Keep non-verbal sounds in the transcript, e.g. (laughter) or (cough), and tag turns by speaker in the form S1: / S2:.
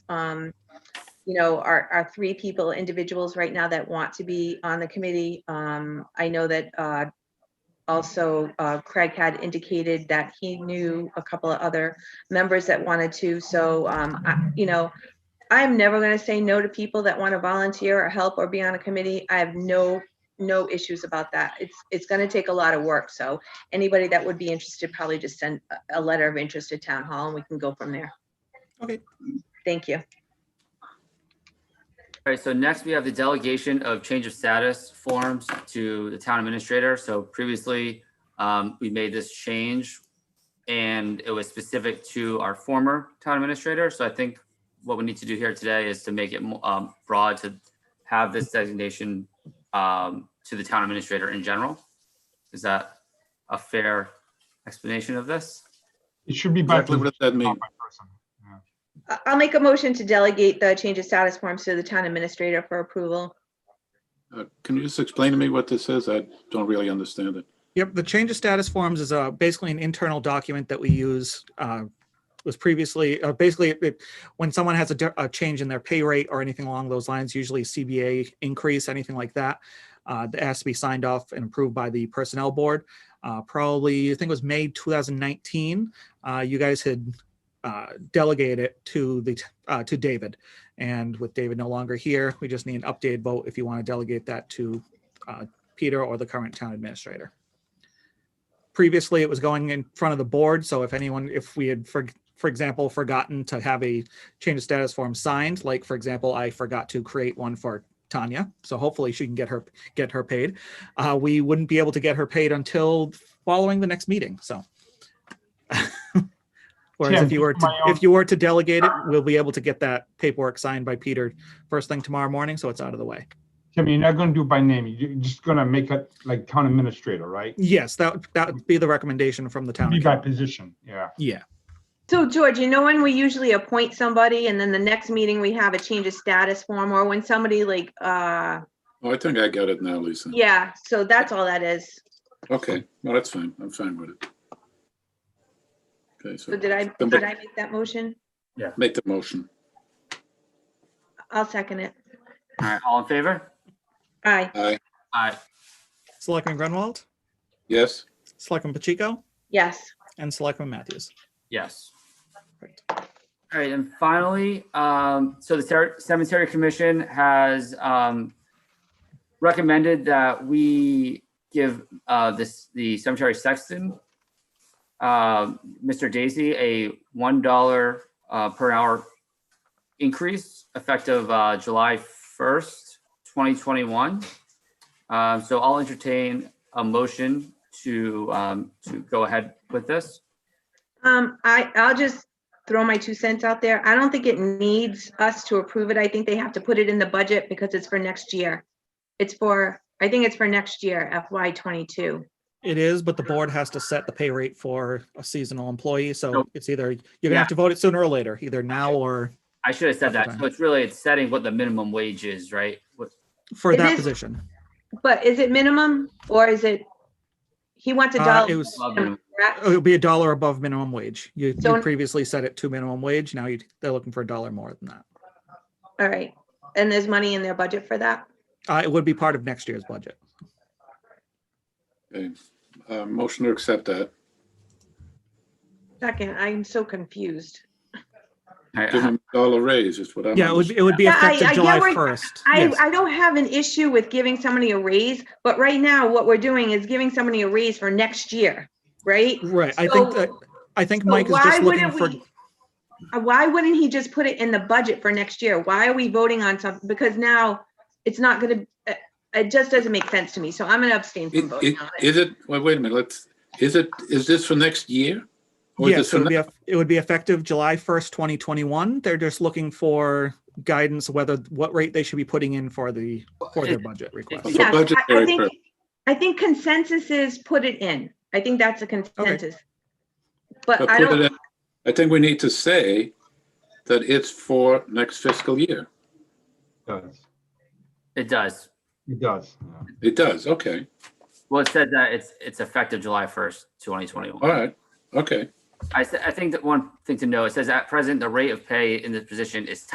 S1: um, you know, are, are three people, individuals right now that want to be on the committee. Um, I know that, uh, also, uh, Craig had indicated that he knew a couple of other members that wanted to, so, um, I, you know, I'm never gonna say no to people that want to volunteer or help or be on a committee. I have no, no issues about that. It's, it's gonna take a lot of work, so anybody that would be interested, probably just send a, a letter of interest to town hall and we can go from there.
S2: Okay.
S1: Thank you.
S3: All right, so next we have the delegation of change of status forms to the town administrator. So previously, um, we made this change and it was specific to our former town administrator. So I think what we need to do here today is to make it mo- um, broad to have this designation um, to the town administrator in general. Is that a fair explanation of this?
S4: It should be by
S2: Exactly
S4: position,
S2: what that
S4: not
S2: means.
S4: by person.
S1: I- I'll make a motion to delegate the change of status forms to the town administrator for approval.
S5: Uh, Can you just explain to me what this is? I don't really understand it.
S2: Yep, the change of status forms is uh, basically an internal document that we use. uh, Was previously, uh, basically, it- it- when someone has a di- a change in their pay rate or anything along those lines, usually CBA increase, anything like that, uh, that has to be signed off and approved by the Personnel Board. Uh, Probably, I think it was May 2019, uh, you guys had uh, delegated it to the, t- uh, to David. And with David no longer here, we just need an updated vote if you want to delegate that to uh, Peter or the current town administrator previously it was going in front of the board. So if anyone, if we had, for, for example, forgotten to have a change of status form signed, like for example, I forgot to create one for Tanya. So hopefully she can get her, get her paid. Uh, we wouldn't be able to get her paid until following the next meeting. So. (laughs) Whereas
S4: Tim,
S2: if you were,
S4: just
S2: to
S4: my own-
S2: if you were to delegate it, we'll be able to get that paperwork signed by Peter first thing tomorrow morning. So it's out of the way.
S4: Tim, you're not gonna do it by name, you're just gonna make it like town administrator, right?
S2: Yes, that, that would be the recommendation from the town.
S4: Be by
S2: accountant.
S4: position, yeah.
S2: Yeah.
S1: So George, you know when we usually appoint somebody and then the next meeting we have a change of status form or when somebody like, uh,
S5: Oh, I think I got it now, Lisa.
S1: yeah, so that's all that is.
S5: Okay, well, that's fine. I'm fine with it. Okay,
S1: So
S5: so
S1: did I, did I make that motion?
S5: make the motion.
S1: I'll second it.
S3: All right, all in favor?
S1: Aye,
S5: Aye,
S3: All right,
S2: Selectman Grunwald,
S5: yes,
S2: Selectman Pacheco,
S1: yes.
S2: and Selectman Matthews.
S3: Yes.
S2: Great.
S3: All right, and finally, um, so the Cer- cemetery commission has, um, recommended that we give, uh, this, the cemetery sexton, uh, Mr. Daisy, a one dollar, uh, per hour increase effective, uh, July first, twenty twenty-one. Um, so I'll entertain a motion to, um, to go ahead with this.
S1: Um, I, I'll just throw my two cents out there. I don't think it needs us to approve it. I think they have to put it in the budget because it's for next year. It's for, I think it's for next year, FY twenty-two.
S2: It is, but the board has to set the pay rate for a seasonal employee, so
S3: So-
S2: it's either, you're gonna have to vote it sooner or later, either now or
S3: I should have said that. So
S2: Okay.
S3: it's really, it's setting what the minimum wage is, right? What-
S2: for
S1: It
S2: that
S1: is
S2: position.
S1: But is it minimum or is it? He wants a
S2: Uh, It
S1: dollar.
S2: was,
S3: above
S1: minimum,
S3: minimum.
S1: correct?
S2: it'll be a dollar above minimum wage. You you
S1: So-
S2: previously set it to minimum wage, now you, they're looking for a dollar more than that.
S1: All right. And there's money in their budget for that?
S2: Uh, it would be part of next year's budget.
S5: okay. Uh, motion to accept that.
S1: Second, I'm so confused.
S3: All right,
S5: Give him a dollar raise is what I'm.
S2: Yeah, it would, be- it would be
S1: Yeah, I- I
S2: effective
S1: get
S2: July
S1: where-
S2: first.
S1: I, I don't have an issue with giving somebody a raise, but right now what we're doing is giving somebody a raise for next year, right?
S2: Right, I think
S1: So-
S2: that, I think
S1: So
S2: Mike is
S1: why
S2: just looking
S1: wouldn't
S2: for,
S1: we- uh, Why wouldn't he just put it in the budget for next year? Why are we voting on something? Because now it's not gonna, uh, it just doesn't make sense to me, so I'm gonna abstain
S5: It-
S1: from voting
S5: it-
S1: on it.
S5: Is it, wait, wait a minute, let's, is it, is this for next year? Or is
S2: Yes,
S5: this
S2: it
S5: for
S2: would
S5: next?
S2: be, eff- it would be effective July 1st, 2021. They're just looking for guidance whether, what rate they should be putting in for the, for their budget request.
S5: for
S1: Yes, I- I
S5: budgetary
S1: think,
S5: purpose.
S1: I think consensus is put it in. I think that's a consensus. But I
S5: I put
S1: don't,
S5: it in- I think we need to say that it's for next fiscal year.
S4: It does,
S3: It does.
S4: it does. yeah.
S5: It does, okay,
S3: Well, it said that it's, it's effective July 1st, 2021.
S5: all right, okay.
S3: I, s- I think that one thing to know, it says at present, the rate of pay in this position is